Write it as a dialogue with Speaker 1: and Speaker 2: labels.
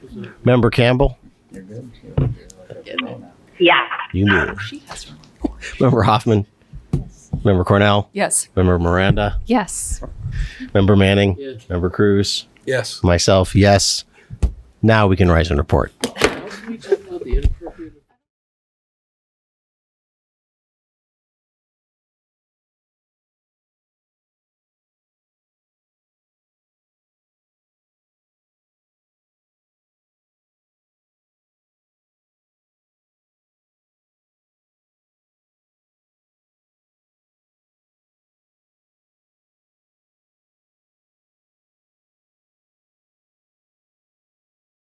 Speaker 1: Member Campbell?
Speaker 2: Yes.
Speaker 1: You can do it.
Speaker 3: She has her.
Speaker 1: Member Hoffman? Member Cornell?
Speaker 3: Yes.
Speaker 1: Member Miranda?
Speaker 3: Yes.
Speaker 1: Member Manning?
Speaker 4: Yes.
Speaker 1: Member Cruz?
Speaker 5: Yes.
Speaker 1: Myself, yes. Now we can rise and report.